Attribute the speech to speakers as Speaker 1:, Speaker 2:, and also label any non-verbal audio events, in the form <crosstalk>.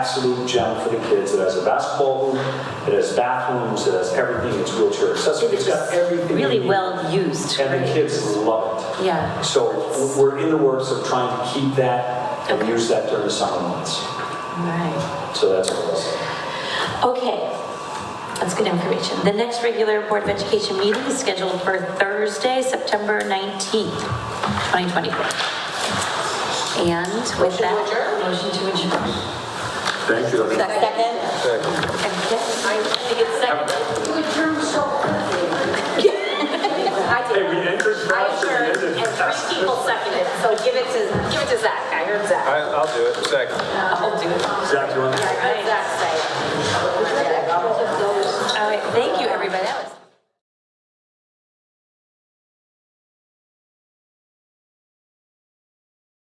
Speaker 1: absolute gem for the kids. It has a basketball hoop, it has bathrooms, it has everything. It's wheelchair accessible. It's got everything. you
Speaker 2: Really
Speaker 1: need.
Speaker 2: well used,
Speaker 1: And the
Speaker 2: right?
Speaker 1: kids love it.
Speaker 2: Yeah.
Speaker 1: So w- we're in the works of trying to keep that and
Speaker 2: Okay.
Speaker 1: use that during the summer months.
Speaker 2: Right.
Speaker 1: So that's what we're
Speaker 2: Okay, that's good information. The next regular Board of Education meeting is scheduled for Thursday, September 19th, 2024. And with that. Motion to adjourn.
Speaker 1: Thank you.
Speaker 2: Second? I think it's second. <laughs>
Speaker 3: Hey, we entered first and we ended
Speaker 4: and three people seconded, so give it to, give it to Zach, I heard Zach.
Speaker 5: I- I'll do it, second.
Speaker 2: I'll do it.
Speaker 1: Zach, you want
Speaker 2: Oh,